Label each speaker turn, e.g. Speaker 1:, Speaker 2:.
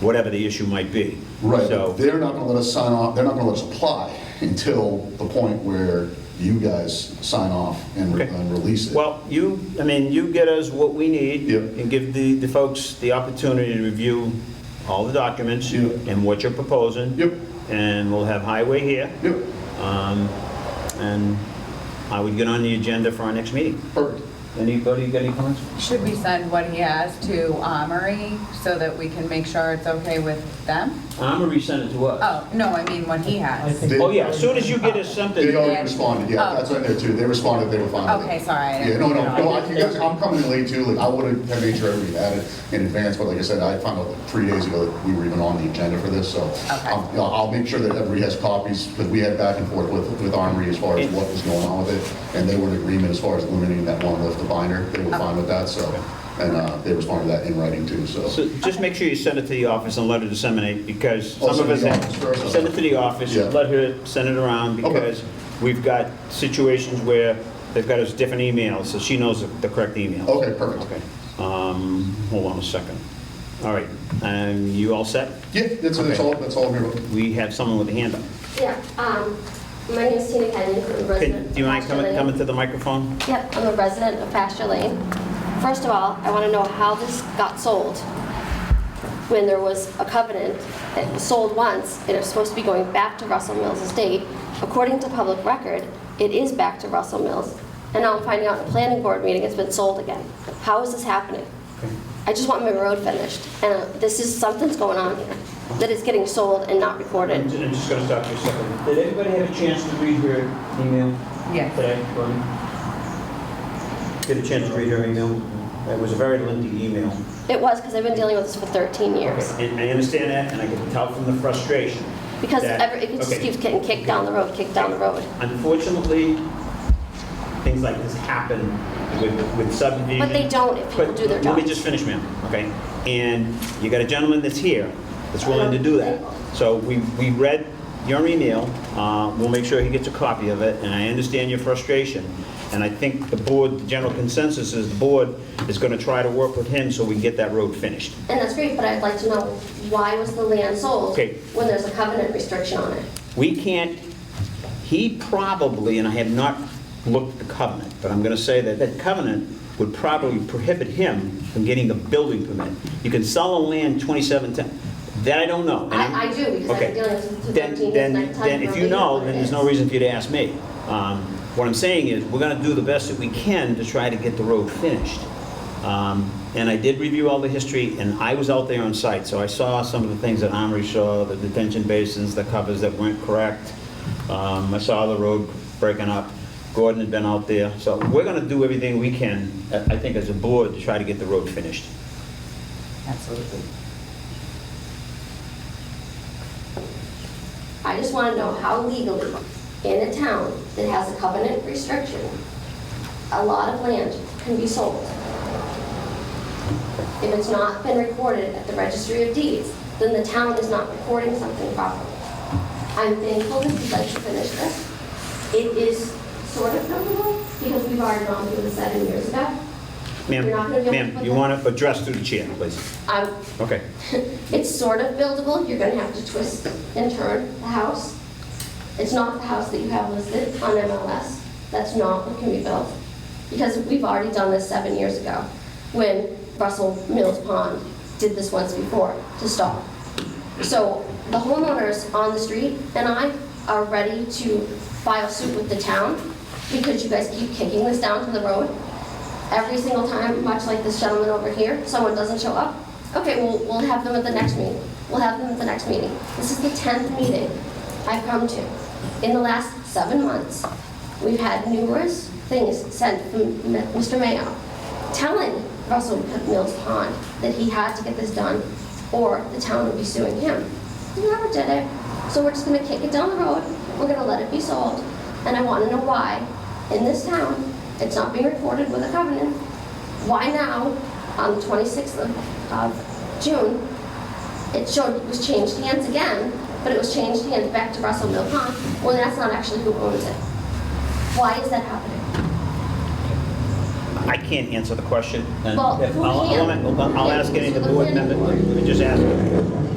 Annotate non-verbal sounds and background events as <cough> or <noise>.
Speaker 1: whatever the issue might be.
Speaker 2: Right,
Speaker 1: So-
Speaker 2: but they're not gonna let us sign off, they're not gonna let us apply <laughs> until the point where you guys sign off and, re-
Speaker 1: Okay.
Speaker 2: and release it.
Speaker 1: Well, you, I mean, you get us what we need.
Speaker 2: Yep.
Speaker 1: And give the, the folks the opportunity to review all the documents.
Speaker 2: Yep.
Speaker 1: And what you're proposing.
Speaker 2: Yep.
Speaker 1: And we'll have highway here.
Speaker 2: Yep,
Speaker 1: Um, And I would get on the agenda for our next meeting.
Speaker 2: perfect.
Speaker 1: Anybody got any comments?
Speaker 3: Should we send what he has to Armory so that we can make sure it's okay with them?
Speaker 1: I'm gonna resend it to us.
Speaker 3: Oh, no, I mean what he has.
Speaker 2: They-
Speaker 1: Oh, yeah, as soon as you get us
Speaker 2: They
Speaker 1: something,
Speaker 2: already responded, yeah,
Speaker 3: Oh.
Speaker 2: that's right there too, they responded, they were fine with it.
Speaker 3: Okay, sorry, I
Speaker 2: Yeah,
Speaker 3: didn't-
Speaker 2: no, no, no, I- you guys, I'm coming in late too, like, I would've had made sure everybody had it in advance, but like I said, I found out like, three days ago that we were even on the agenda for this, so. um, you know, I'll make sure that everybody has copies, because we had back and forth with, with Armory as far as what was going on with it, and they were in agreement as far as eliminating that one lift, the binder, they were fine with that, so, and, uh, they responded to that in writing too, so.
Speaker 1: so just make sure you send it to the office and let her disseminate, because
Speaker 2: Oh,
Speaker 1: some of
Speaker 2: send
Speaker 1: us
Speaker 2: it to the
Speaker 1: have,
Speaker 2: office first, okay.
Speaker 1: send it to the office,
Speaker 2: Yeah.
Speaker 1: let her send it around,
Speaker 2: Okay.
Speaker 1: because we've got situations where they've got us different emails, so she knows the the correct email.
Speaker 2: Okay, perfect.
Speaker 1: Okay. Um, hold on a second. All right, and you all set?
Speaker 2: Yeah, that's, that's
Speaker 1: Okay.
Speaker 2: all, that's all I'm here about.
Speaker 1: We have someone with a hand up.
Speaker 4: Yeah, um, my name is Tina Kenyon, I'm a resident
Speaker 1: Can-
Speaker 4: of
Speaker 1: Do you mind
Speaker 4: Pasture
Speaker 1: coming,
Speaker 4: Lane.
Speaker 1: coming to the microphone?
Speaker 4: Yep, I'm a resident of Pasture Lane. First of all, I want to know how this got sold when there was a covenant that was sold once and it's supposed to be going back to Russell Mills Estate. According to public record, it is back to Russell Mills. And now I'm finding out in a planning board meeting it's been sold again. How is this happening? I just want my road finished. And uh, this is, something's going on here, that it's getting sold and not recorded.
Speaker 1: I'm ju- I'm just gonna stop you a second. Did anybody have a chance to read her email
Speaker 3: Yes.
Speaker 1: today? Gordon? Get a chance to read her email? It was a very lengthy email.
Speaker 4: It was, because I've been dealing with this for 13 years.
Speaker 1: And I understand that, and I can tell from the frustration.
Speaker 4: Because
Speaker 1: that-
Speaker 4: every, it just
Speaker 1: okay.
Speaker 4: keeps getting kicked down the road, kicked down the road.
Speaker 1: Unfortunately, things like this happen with with subdivision.
Speaker 4: But they don't if people
Speaker 1: Mm-hmm. But
Speaker 4: do their
Speaker 1: Let
Speaker 4: job.
Speaker 1: me just finish, ma'am, okay? And you got a gentleman that's here that's willing to do that. So we, we read your email, uh, we'll make sure he gets a copy of it, and I understand your frustration. And I think the board, the general consensus is the board is gonna try to work with him so we can get that road finished.
Speaker 4: And that's great, but I'd like to know, why was the land sold
Speaker 1: Okay.
Speaker 4: when there's a covenant restriction on it?
Speaker 1: We can't, he probably, and I have not looked at the covenant, but I'm going to say that that covenant would probably prohibit him from getting a building permit. You can sell a land 2710, that I don't know. and I'm-
Speaker 4: I- I do, because I've been
Speaker 1: Okay.
Speaker 4: dealing
Speaker 1: Then-
Speaker 4: with 13 years,
Speaker 1: then-
Speaker 4: and I can tell
Speaker 1: Then
Speaker 4: you
Speaker 1: if
Speaker 4: for a
Speaker 1: you
Speaker 4: reason
Speaker 1: know,
Speaker 4: what it
Speaker 1: then there's no
Speaker 4: is.
Speaker 1: reason for you to ask me. Um, What I'm saying is, we're going to do the best that we can to try to get the road finished. Um, And I did review all the history, and I was out there on site, so I saw some of the things that Omri saw, the detention basins, the covers that weren't correct. Um, I saw the road breaking up. Gordon had been out there. So we're going to do everything we can, I- I think, as a board, to try to get the road finished.
Speaker 3: Absolutely.
Speaker 4: I just want to know how legally, in a town that has a covenant restriction, a lot of land can be sold. If it's not been recorded at the registry of deeds, then the town is not recording something properly. I'm thankful that you'd like to finish this. It is sort of notable because we've already gone through this seven years ago.
Speaker 1: Ma'am,
Speaker 4: You're not gonna be able to
Speaker 1: ma'am,
Speaker 4: put
Speaker 1: you
Speaker 4: that-
Speaker 1: want to address through the chair, please?
Speaker 4: I'm
Speaker 1: Okay.
Speaker 4: <laughs> it's sort of buildable, you're gonna have to twist and turn the house. It's not the house that you have listed on MLS, that's not what can be built. Because we've already done this seven years ago, when Russell Mills Pond did this once before to stop. So the homeowners on the street and I are ready to file suit with the town because you guys keep kicking this down to the road every single time, much like this gentleman over here, someone doesn't show up, okay, we'll, we'll have them at the next meeting. We'll have them at the next meeting. This is the 10th meeting I've come to. In the last seven months, we've had numerous things sent from M- Mr. Mayo telling Russell Mills Pond that he had to get this done or the town would be suing him. He never did it. So we're just gonna kick it down the road, we're gonna let it be sold, and I wanna know why, in this town, it's not being recorded with a covenant. Why now, on the 26th of, of June, it showed, it was changed hands again, but it was changed hands back to Russell Mill Pond, when that's not actually who owns it. Why is that happening?
Speaker 1: I can't answer the question. and
Speaker 4: Well,
Speaker 1: if-
Speaker 4: who
Speaker 1: I'll- I'll-
Speaker 4: can?
Speaker 1: I'll- I'll ask any of the board members, let me just ask.